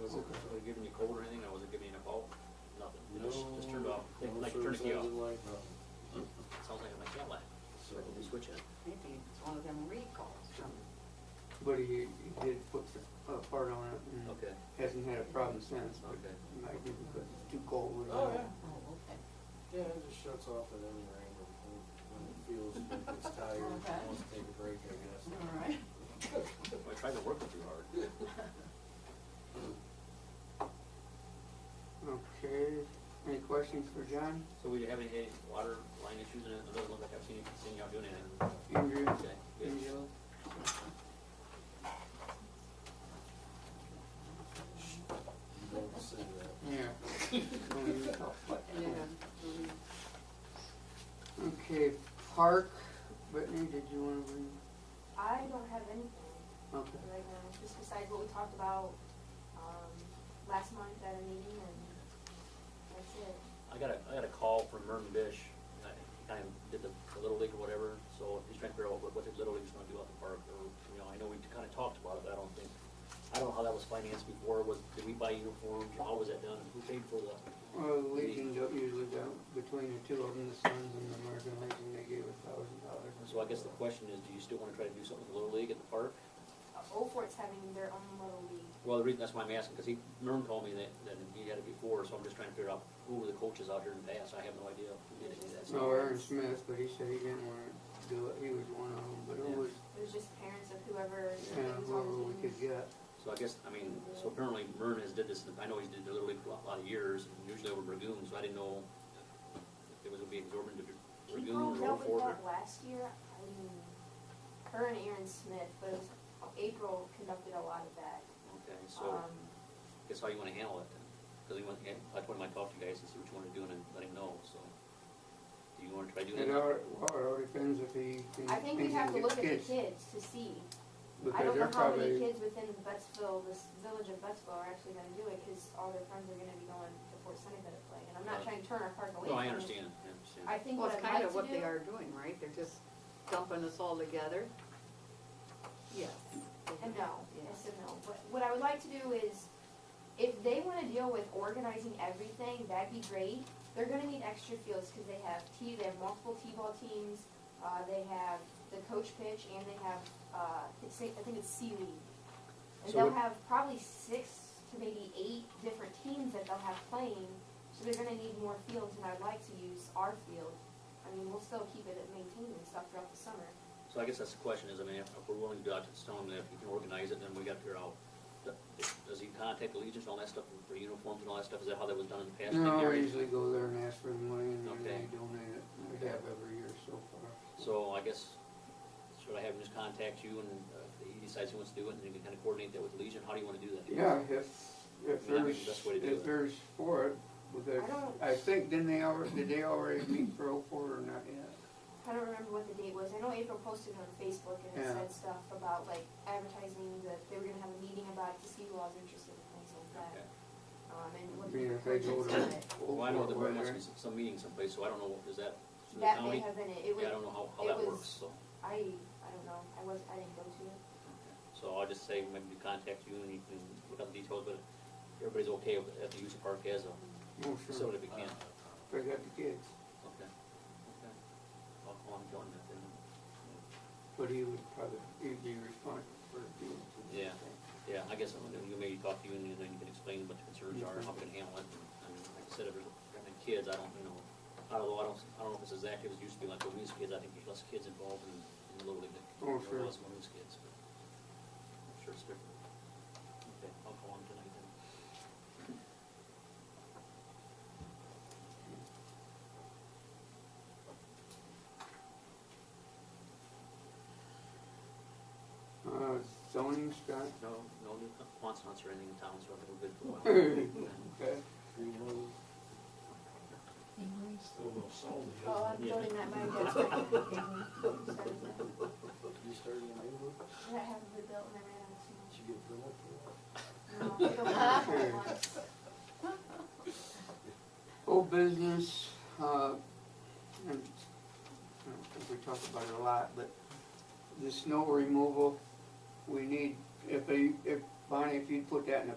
wasn't really giving you cold or anything, I wasn't giving you enough out, nothing, it just, No, just turned off, no like service turning you off, I didn't like. sounds like my Cadillac, so I can switch it. Maybe it's one of them recalls from, But he, he did put the, a part on it and Okay. hasn't had a problem since. but Okay. he Might give it a- too cold. with Oh, it. yeah. oh, okay. Yeah, it just shuts off at any rate when, when it feels like it's tired, Okay. it wants to take a break, I guess. All right. I tried to work it too hard. Okay, any questions for John? So we haven't had any water line issues and it doesn't look like I've seen, seen y'all doing anything. Andrew? Okay, good. Angela? You don't say that. Yeah. Don't use it all. Yeah, mm, Okay, park, Brittany, did you wanna bring, I don't have anything okay, right now, just besides what we talked about, um, last month at a meeting and that's it. I got a, I got a call from Merton Bish, and I kind of did the the Little League or whatever, so he's trying to figure out what, what the Little League's gonna do out in the park, or, you know, I know we kind of talked about it, but I don't think, I don't know how that was financed before, was, did we buy uniforms, how was that done, and who paid for the, well, Legion don't usually go, between the two of them, the Suns and the American Legion, they gave a thousand dollars. so I guess the question is, do you still wanna try to do something with the Little League at the park? Uh, Old Fort's having their own little league. Well, the reason, that's why I'm asking, because he, Merton told me that, that he had it before, so I'm just trying to figure out who were the coaches out here in the past, I have no idea who did any of that No, stuff. Aaron Smith, but he said he didn't wanna do it, he was one of them, but it was, It was just parents of whoever yeah, was whoever we on the could team. get. So I guess, I mean, so apparently Mern has did this, I know he's did the Little League for a lot of years, and usually over Dragoon, so I didn't know if it was gonna be absorbed into She Dragoon or broke Old up with Fort. or- that last year, I mean, her and Aaron Smith, but it was, April conducted a lot of that. Okay, so, Um, guess how you wanna handle it then? Cause he want, I told him I'd talk to you guys and see what you wanna do and then let him know, so. Do you wanna try doing It that? all, well, it all depends if he can. I think we he have can get to look at the kids to see. I Because don't they're know how probably, many kids within Buttsville, this village of Buttsville are actually gonna do it, cause all their friends are gonna be going to Fort Seneca to play, and I'm Right. not trying to turn our park away No, I from it. understand, I understand. I think Well, what it's I'd kind of like what to do, they are doing, right? They're just dumping us all together? Yes. and no, Yeah. yes and no, but what I would like to do is, if they wanna deal with organizing everything, that'd be great. They're gonna need extra fields, cause they have T, they have multiple T-ball teams, uh, they have the coach pitch, and they have, uh, it's, I think it's C League. And So they'll what- have probably six to maybe eight different teams that they'll have playing, so they're gonna need more fields, and I'd like to use our field. I mean, we'll still keep it maintained and stuff throughout the summer. So I guess that's the question is, I mean, if if we're willing to do it, it's telling them that if you can organize it, then we got to figure out, th- does he contact the Legion and all that stuff for uniforms and all that stuff? Is that how that was done in the past? Did no, I Gary- usually go there and ask for the money and then Okay. they donate it, we have every year so far. So I guess, should I have him just contact you and uh, if he decides he wants to do it and you can kind of coordinate that with Legion? How do you want to do that? Yeah, if, if Yeah, I mean, there's, that's the way to do if it. there's for it, because I don't- I think, didn't they already, did they already meet for oh four or not yet? I don't remember what the date was. I know April posted it on Facebook and it Yeah. said stuff about like advertising that they were gonna have a meeting about it to see who all was interested in things like Okay. that. Um, and I what mean, the if they go purchase to of it. oh Well, I know that there four, must whether- be some- some meeting someplace, so I don't know, is that through the That may county? have been it. It Yeah, I was, don't know how, how it that was- works, so. I, I don't know. I was, I didn't go to it. So I'll just say maybe contact you and you can look up the details, but everybody's okay with, at the use of park as a Oh, sure, facility if we can. if I got the kids, Uh, Okay, okay. I'll call him, join that then. but he would probably, he'd be responsible for doing it. Yeah. Yeah, I guess I'm gonna, you maybe talk to you and then you can explain what the concerns are and how we can handle it. I mean, like I said, if there's, I think kids, I don't, you know, I don't know, I don't, I don't know if it's exactly as it used to be like when we was kids. I think there's less kids involved in, in the Little League than Oh, there sure. was when we was kids, but I'm sure it's different. Okay, I'll call him tonight then. Uh, zoning, Scott? No, no new wants hunts or anything in town, so I think we're good for a while. Okay. Reload. Still no salt. Oh, I'm Yeah. building that mine that's right now. Sorry. You started in April, That hasn't been built and I ran out of did you get Philip for that? too much. No, I don't want it once. Old business, uh, and I don't think we talk about it a lot, but the snow removal, we need, if they, if, Bonnie, if you'd put that in a